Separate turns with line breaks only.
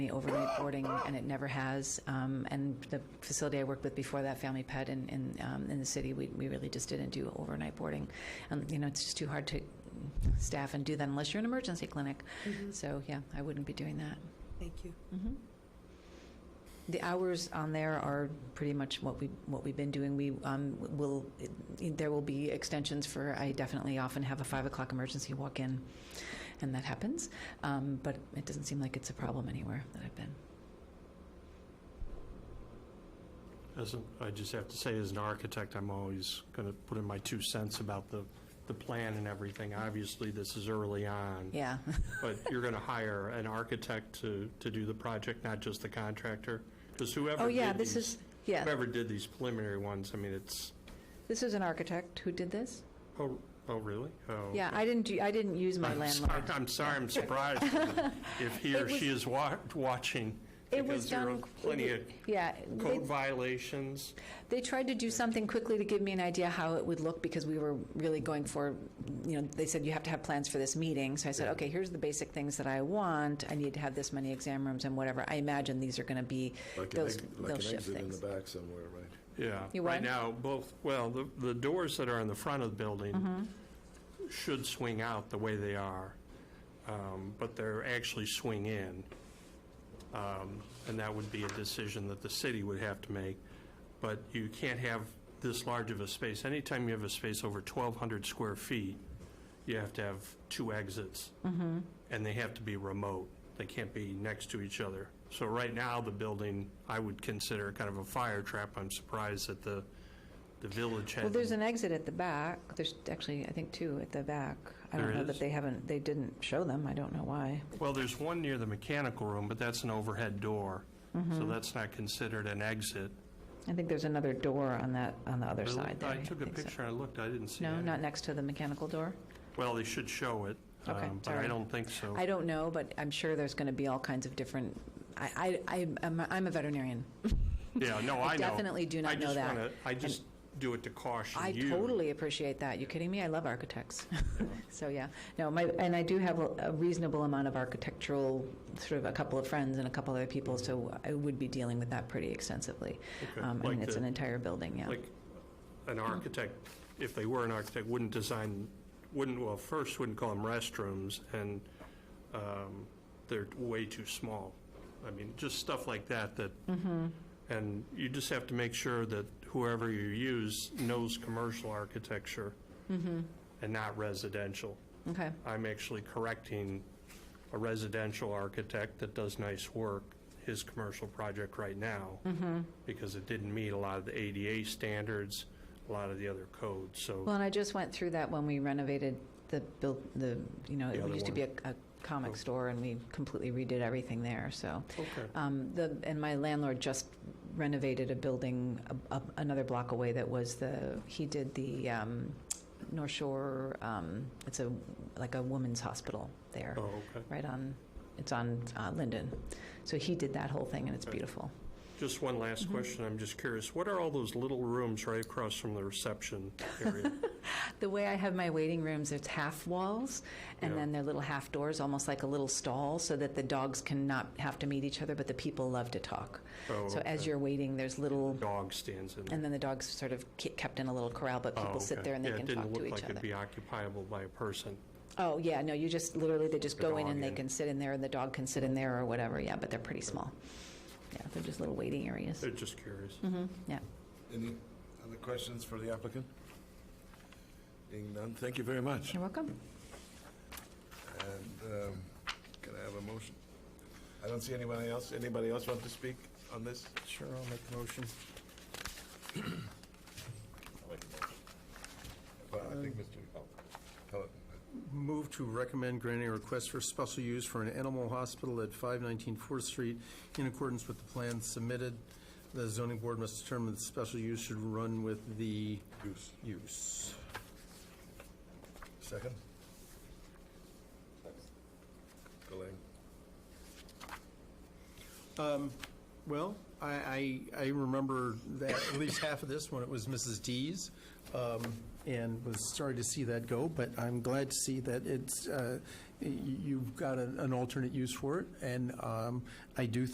any overnight boarding, and it never has. Um, And the facility I worked with before that, Family Pet, in, in, um, in the city, we, we really just didn't do overnight boarding. And, you know, it's just too hard to staff and do that unless you're an emergency clinic. So, yeah, I wouldn't be doing that.
Thank you.
The hours on there are pretty much what we, what we've been doing. We um, will, there will be extensions for, I definitely often have a 5 o'clock emergency walk-in, and that happens. Um, But it doesn't seem like it's a problem anywhere that I've been.
As an, I just have to say, as an architect, I'm always going to put in my two cents about the, the plan and everything. Obviously, this is early on.
Yeah,
But you're going to hire an architect to, to do the project, not just the contractor? Because whoever
Oh, yeah,
did
this
these-
is- yeah.
Whoever did these preliminary ones, I mean, it's,
this is an architect who did this.
oh, oh, really? Oh,
Yeah, I didn't, do- I didn't use my
I'm sorry,
landlord.
I'm sorry, I'm surprised if he
It
or
was-
she is wa- watching.
It was
because there are
done-
Plenty of
Yeah, they-
code violations.
they tried to do something quickly to give me an idea how it would look because we were really going for, you know, they said you have to have plans for this meeting. So I said, okay, here's the basic things that I want. I need to have this many exam rooms and whatever. I imagine these are going to be
Like an
those,
exit, like
those
an
shift
exit in the
things.
back somewhere, right?
Yeah.
You
Right
what?
now, both, well, the, the doors that are in the front of the building should swing out the way they are, um, but they're actually swing in. Um, And that would be a decision that the city would have to make. But you can't have this large of a space. Anytime you have a space over 1,200 square feet, you have to have two exits.
Mm-hmm.
And they have to be remote. They can't be next to each other. So right now, the building, I would consider kind of a fire trap. I'm surprised that the, the village
Well,
hasn't.
there's an exit at the back. There's actually, I think, two at the back. I don't
There
know that
is?
they haven't, they didn't show them. I don't know why.
Well, there's one near the mechanical room, but that's an overhead door.
Mm-hmm.
So that's not considered an exit.
I think there's another door on that, on the other
I
side there.
I took a
think so.
picture, I looked, I didn't see
No,
any.
not next to the mechanical door?
Well, they should show it,
Okay,
um, but
sorry.
I don't think so.
I don't know, but I'm sure there's going to be all kinds of different, I, I, I- I'm, I'm a veterinarian.
Yeah, no,
I
I know.
definitely do not
I
know
just
that.
wanna- I
And-
just do it to caution
I
you.
totally appreciate that. You kidding me? I love architects. So, yeah. No, my, and I do have a a reasonable amount of architectural, sort of a couple of friends and a couple other people, so I would be dealing with that pretty extensively.
Okay,
Um, I mean,
like
it's
the-
an entire building, yeah.
Like, an architect, if they were an architect, wouldn't design, wouldn't, well, first, wouldn't call them restrooms, and um, they're way too small. I mean, just stuff like that, that,
Mm-hmm.
and you just have to make sure that whoever you use knows commercial architecture
Mm-hmm.
and not residential.
Okay,
I'm actually correcting a residential architect that does nice work, his commercial project right now,
Mm-hmm.
because it didn't meet a lot of the ADA standards, a lot of the other codes, so,
well, and I just went through that when we renovated the, buil- the, you know,
The
it
other
used to
one.
be a a comic
Oh.
store, and we completely redid everything there, so.
okay.
Um, the, and my landlord just renovated a building a, a, another block away that was the, he did the um, North Shore, um, it's a, like a women's hospital there,
Oh, okay.
right on, it's on uh, Linden. So he did that whole thing and it's
Okay.
beautiful.
Just one last
Mm-hmm.
question, I'm just curious, what are all those little rooms right across from the reception area?
The way I have my waiting rooms, it's half walls and
Yeah.
then they're little half doors, almost like a little stall so that the dogs cannot have to meet each other, but the people love to talk.
Oh,
So as
okay.
you're waiting, there's little
Dog stands in there.
And then the dogs sort of ke- kept in a little corral, but
Oh,
people sit
okay.
there and they
Yeah,
can talk to
It didn't
each
look like it'd
other.
be occupiable by a person.
Oh, yeah, no, you just, literally, they just
The
go in
dog
and they
in.
can sit in there, and the dog can sit in there or whatever, yeah, but they're pretty small. Yeah, they're just little waiting areas, Mm-hmm,
i just curious.
yeah.
Any other questions for the applicant? Being none, thank you very much.
You're welcome.
And um, can I have a motion? I don't see anybody else. Anybody else want to speak on this?
Sure, I'll make a motion.
Well, I
Um.
think Mr. Oh, Pellet.
Move to recommend granting a request for special use for an animal hospital at 519 Fourth Street in accordance with the plan submitted. The zoning board must determine that special use should run with the
Goose,
use.
second? Delay.
Well, I, I, I remember that, at least half of this when it was Mrs. D's. um, and was sorry to see that go, but I'm glad to see that it's, uh, y- you've got an an alternate use for it, and um, I do